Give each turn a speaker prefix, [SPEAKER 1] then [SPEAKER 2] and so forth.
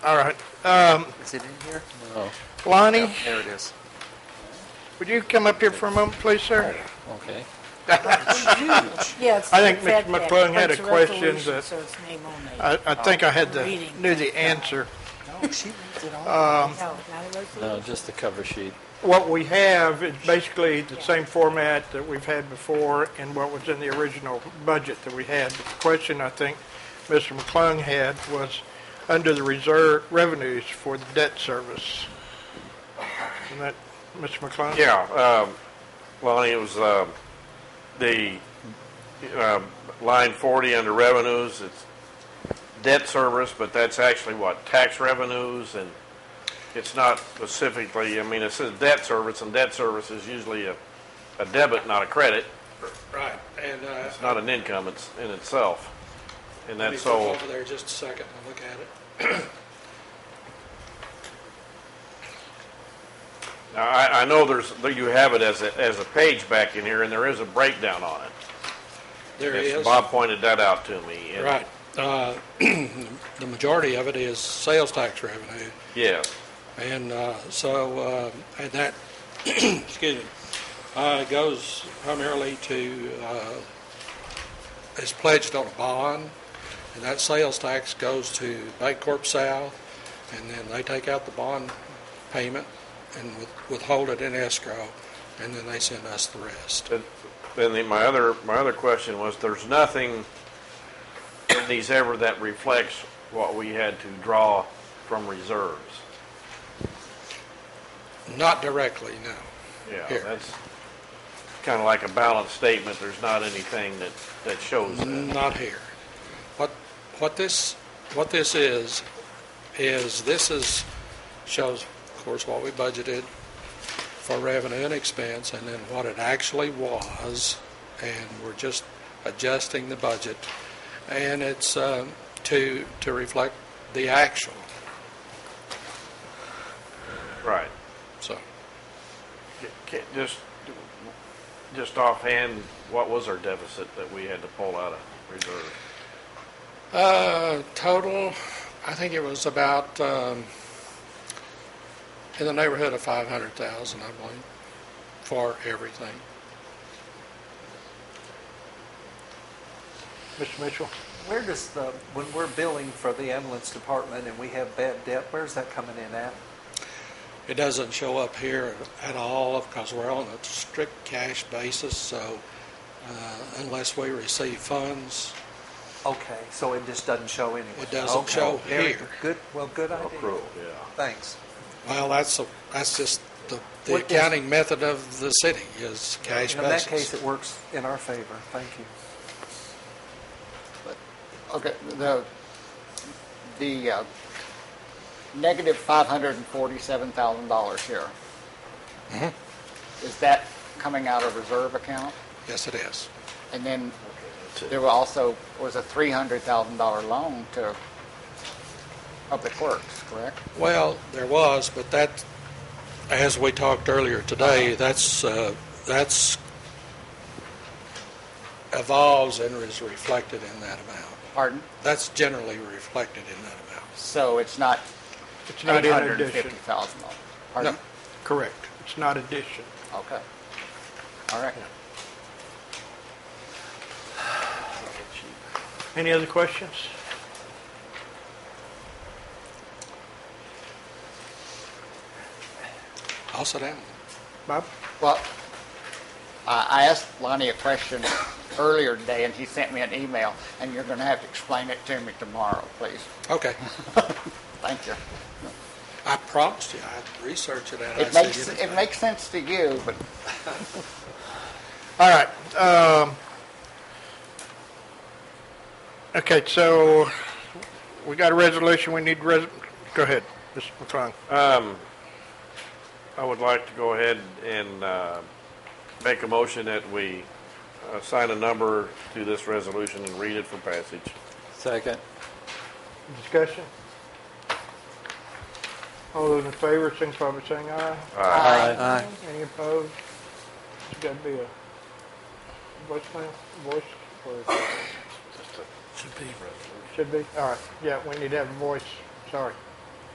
[SPEAKER 1] All right. Um,
[SPEAKER 2] Is it in here?
[SPEAKER 3] Oh,
[SPEAKER 1] Lonnie,
[SPEAKER 2] There it is.
[SPEAKER 1] would you come up here for a moment, please, sir?
[SPEAKER 3] Okay.
[SPEAKER 4] Yes.
[SPEAKER 1] I think Mr.
[SPEAKER 4] McClung
[SPEAKER 1] McClung had a question that-
[SPEAKER 4] So it's name only.
[SPEAKER 1] I, I think I had the,
[SPEAKER 4] Reading.
[SPEAKER 1] knew the answer.
[SPEAKER 2] No, she reads it all.
[SPEAKER 1] um,
[SPEAKER 4] No, not a resolution.
[SPEAKER 3] No, Uh, just the cover sheet.
[SPEAKER 1] What we have is basically the same format that we've had before and what was in the original budget that we had. But The question I think Mr. McClung had was under the reserve revenues for the debt service. Isn't that, Mr. McClung?
[SPEAKER 5] Yeah, um, Lonnie, it was, um, the, um, line forty under revenues, it's debt service, but that's actually what, tax revenues, and it's not specifically, I mean, it says debt service, and debt service is usually a, a debit, not a credit.
[SPEAKER 6] Right, and uh,
[SPEAKER 5] It's not an income, it's in itself. And
[SPEAKER 6] let me
[SPEAKER 5] that's
[SPEAKER 6] flip
[SPEAKER 5] all,
[SPEAKER 6] over there just a second and look at it.
[SPEAKER 5] now, I, I know there's, there you have it as a, as a page back in here, and there is a breakdown on it.
[SPEAKER 6] There
[SPEAKER 5] Yes,
[SPEAKER 6] is,
[SPEAKER 5] Bob pointed that out to me. and-
[SPEAKER 6] right. Uh, The majority of it is sales tax revenue,
[SPEAKER 5] Yes.
[SPEAKER 6] and uh, so, uh, and that, excuse me, uh, goes primarily to, uh, is pledged on a bond, and that sales tax goes to Bancorp South, and then they take out the bond payment and with- withhold it in escrow, and then they send us the rest.
[SPEAKER 5] But Then the- my other, my other question was, there's nothing in these ever that reflects what we had to draw from reserves.
[SPEAKER 6] Not directly, no.
[SPEAKER 5] Yeah,
[SPEAKER 6] Here.
[SPEAKER 5] that's kind of like a balance statement. There's not anything that, that shows that.
[SPEAKER 6] Not here. What, what this, what this is, is this is, shows, of course, what we budgeted for revenue and expense, and then what it actually was, and we're just adjusting the budget. And it's um, to, to reflect the actual,
[SPEAKER 5] Right.
[SPEAKER 6] so.
[SPEAKER 5] Ca- Just, just offhand, what was our deficit that we had to pull out of reserve?
[SPEAKER 6] Uh, total, I think it was about, um, in the neighborhood of five hundred thousand, I believe, for everything.
[SPEAKER 1] Mr. Mitchell?
[SPEAKER 2] Where does the, when we're billing for the ambulance department and we have bad debt, where's that coming in at?
[SPEAKER 6] It doesn't show up here at all because we're on a strict cash basis, so, uh, unless we receive funds,
[SPEAKER 2] Okay, so it just doesn't show anywhere?
[SPEAKER 6] It doesn't
[SPEAKER 2] Okay.
[SPEAKER 6] show
[SPEAKER 2] Very
[SPEAKER 6] here.
[SPEAKER 2] good. Good, well, good idea.
[SPEAKER 5] Accrual, yeah.
[SPEAKER 2] Thanks.
[SPEAKER 6] well, that's, a- that's just the, the
[SPEAKER 2] What is-
[SPEAKER 6] accounting method of the city is cash basis.
[SPEAKER 2] In that case, it works in our favor. Thank you.
[SPEAKER 7] Okay, the, the uh, negative $547,000 here. Is that coming out of reserve account?
[SPEAKER 6] Yes, it is.
[SPEAKER 7] And then there were also, was a $300,000 loan to Public Works, correct?
[SPEAKER 6] Well, there was, but that, as we talked earlier today, that's, uh, that's evolves and is reflected in that amount.
[SPEAKER 7] Pardon?
[SPEAKER 6] That's generally reflected in that amount.
[SPEAKER 7] So it's not
[SPEAKER 1] It's not in addition.
[SPEAKER 7] $850,000? Pardon?
[SPEAKER 1] Correct. It's not addition.
[SPEAKER 7] Okay. All right.
[SPEAKER 1] Any other questions?
[SPEAKER 6] I'll sit down.
[SPEAKER 1] Bob?
[SPEAKER 7] Well, I I asked Lonnie a question earlier today, and he sent me an email, and you're going to have to explain it to me tomorrow, please.
[SPEAKER 6] Okay.
[SPEAKER 7] Thank you.
[SPEAKER 6] I promised you, I'd research it out.
[SPEAKER 7] It makes, it makes sense to you, but
[SPEAKER 1] All right. um, Okay, so we got a resolution, we need, res- go ahead, Mr. McClung.
[SPEAKER 5] Um, I would like to go ahead and, uh, make a motion that we uh, assign a number to this resolution and read it for passage.
[SPEAKER 3] Second.
[SPEAKER 1] Discussion? All those in favor, signify by saying aye.
[SPEAKER 3] Aye.
[SPEAKER 2] Aye.
[SPEAKER 1] Any opposed? It's got to be a voicemail, voice, or
[SPEAKER 5] Just a-
[SPEAKER 1] should be, all right, yeah, we need to have a voice, sorry.